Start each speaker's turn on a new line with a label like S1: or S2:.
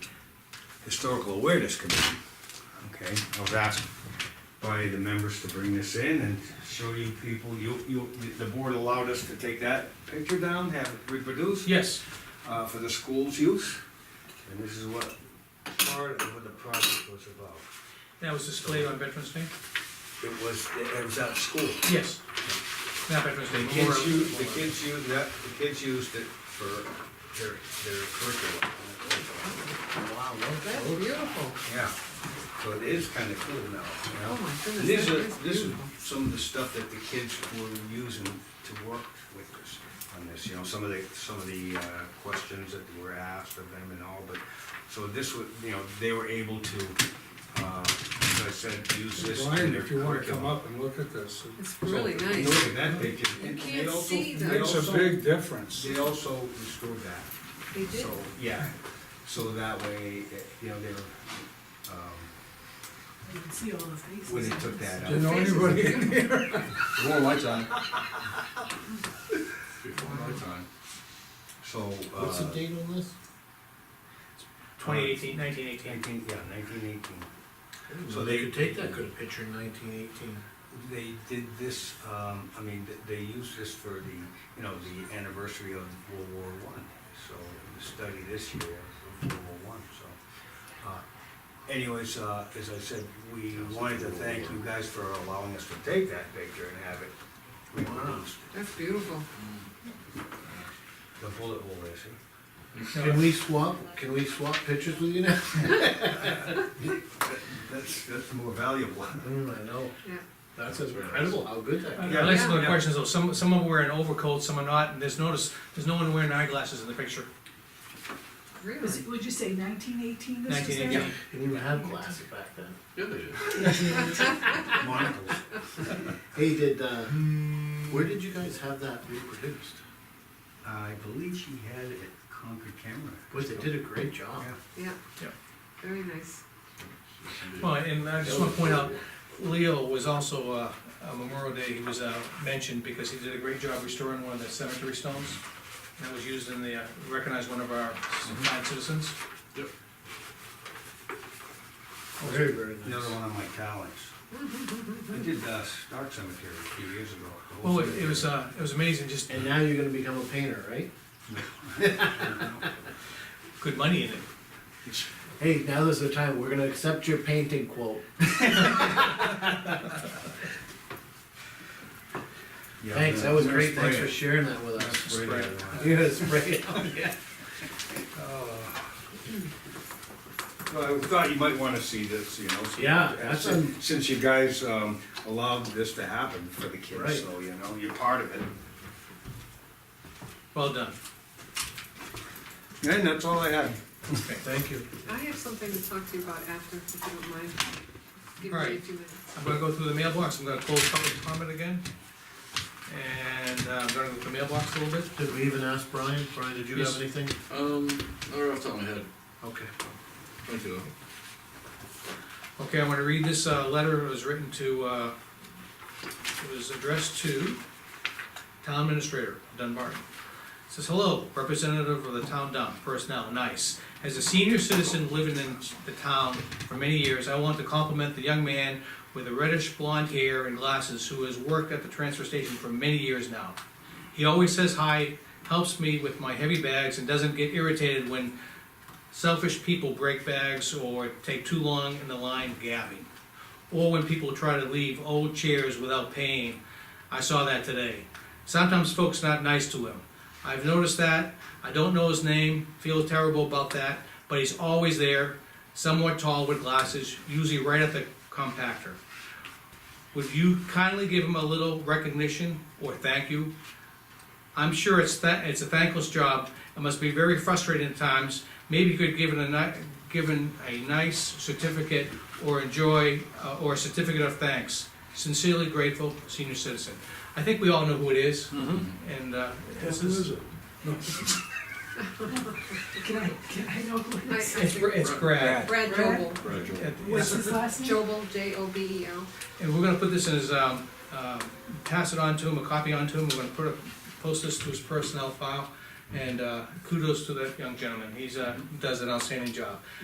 S1: Historical Awareness Committee.
S2: Okay, I was asked by the members to bring this in and show you people, you, you, the board allowed us to take that picture down, have it reproduced.
S3: Yes,
S2: Uh, for the school's use, and this is what part of what the project was about.
S3: that was displayed on Veterans Day?
S2: It was, it was at school.
S3: Yes. Not Veterans Day,
S2: The
S3: Memorial.
S2: kids use, the kids use that, the kids used it for their, their curriculum.
S4: Wow, that's beautiful.
S2: Yeah, so it is kinda cool now, you know?
S4: Oh my goodness,
S2: This
S4: that
S2: is,
S4: is
S2: this is
S4: beautiful.
S2: some of the stuff that the kids were using to work with us on this, you know, some of the, some of the, uh, questions that were asked of them and all, but, so this was, you know, they were able to, uh, as I said, use this in
S5: Brian,
S2: their
S5: if you wanna come
S2: curriculum.
S5: up and look at this,
S4: It's
S2: So,
S4: really
S2: if you
S4: nice.
S2: Look at that picture.
S4: You
S2: They
S4: can't
S2: also-
S4: see
S2: they
S4: that.
S5: it's
S2: also-
S5: a big difference.
S2: They also restored that.
S4: They did.
S2: So, yeah, so that way, eh, you know, they were, um,
S4: You can see all the faces.
S2: when they took that
S5: Do you
S2: out.
S5: know anybody in here?
S1: More lights on.
S2: So, uh.
S6: What's the date on this?
S3: 2018, 1918.
S2: Nineteen, yeah, nineteen eighteen. So
S6: So
S2: they-
S6: they could take that good picture in nineteen eighteen.
S2: They did this, um, I mean, th- they used this for the, you know, the anniversary of World War One. So, the study this year of World War One, so. uh, Anyways, uh, as I said, we wanted to thank you guys for allowing us to take that picture and have it reproduced.
S4: That's beautiful.
S2: The bullet hole, I see.
S6: Can we swap, can we swap pictures with you now?
S2: That's, that's more valuable.
S6: Mm, I know.
S4: Yeah.
S6: That's incredible how good that.
S3: I
S2: Yeah.
S3: like some of the
S2: Yeah.
S3: questions though, some, some are wearing overcoats, some are not, and there's notice, there's no one wearing eyeglasses in the picture.
S4: Really?
S7: Was it- Would you say nineteen eighteen this was
S3: 1918.
S7: there?
S6: You didn't even have glasses back then.
S2: Monocles.
S6: Hey, did, uh, where did you guys have that reproduced?
S2: I believe she had it at Concord Camera.
S6: Boy, they did a great job.
S2: Yeah.
S4: Yeah.
S3: Yeah.
S4: Very nice.
S3: Well, and I just wanna point out, Leo was also, uh, on Memorial Day, he was, uh, mentioned because he did a great job restoring one of the cemetery stones. That was used in the, uh, recognized one of our fine citizens.
S6: Very, very nice.
S2: Another one of my talents. I did uh, Stark Cemetery a few years ago. the whole
S3: Well, it it was, uh, it was amazing, just
S6: And now you're gonna become a painter, right?
S2: cemetery.
S3: good money in it.
S6: Hey, now is the time, we're gonna accept your painting quote.
S2: Yeah,
S6: Thanks,
S2: I'm
S6: that was
S2: gonna
S6: great, thanks
S2: spray
S6: for
S2: it.
S6: sharing that with
S2: I'm gonna
S6: us.
S2: spray
S3: Spray
S2: it.
S6: You're gonna spray it on, yeah.
S2: Well, I thought you might wanna see this, you know. so-
S6: Yeah, that's a-
S2: Since you guys um, allowed this to happen for the
S6: Right.
S2: kids, so, you know, you're part of it.
S3: Well done.
S2: And that's all I had.
S6: Thank you.
S4: I have something to talk to you about after, if you don't mind. Give me a
S3: Alright.
S4: few minutes.
S3: I'm gonna go through the mailbox, I'm gonna close public comment again. And uh, I'm gonna go through the mailbox a little bit.
S6: Did we even ask Brian? Brian, did you
S3: Yes.
S6: have anything?
S8: Um, not right off the top of my head.
S6: Okay.
S8: Thank you.
S3: Okay, I'm gonna read this, uh, letter, it was written to, uh, it was addressed to Town Administrator Dunbarton. It Says, hello, representative of the town dump, personnel, nice. As a senior citizen living in the town for many years, I want to compliment the young man with the reddish blonde hair and glasses who has worked at the transfer station for many years now. He always says hi, helps me with my heavy bags, and doesn't get irritated when selfish people break bags or take too long in the line gabbing. Or when people try to leave old chairs without paying. I saw that today. Sometimes folks not nice to him. I've noticed that. I don't know his name, feel terrible about that, but he's always there, somewhat tall with glasses, usually right at the compactor. Would you kindly give him a little recognition or thank you? I'm sure it's tha- it's a thankless job and must be very frustrating at times. Maybe you could give it a ni- given a nice certificate or enjoy uh, or a certificate of thanks. Sincerely grateful, senior citizen. I think we all know who it is, and uh, this is
S7: Can I, can I know who it is?
S3: it's, Br- it's Brad.
S4: Brad
S7: Brad?
S4: Jobel.
S8: Right,
S3: It-
S7: What's his last name?
S4: Jobel, J O B E L.
S3: And we're gonna put this in his, um, uh, pass it on to him, a copy on to him, we're gonna put a, post this to his personnel file. And, uh, kudos to that young gentleman, he's, uh, does an outstanding job.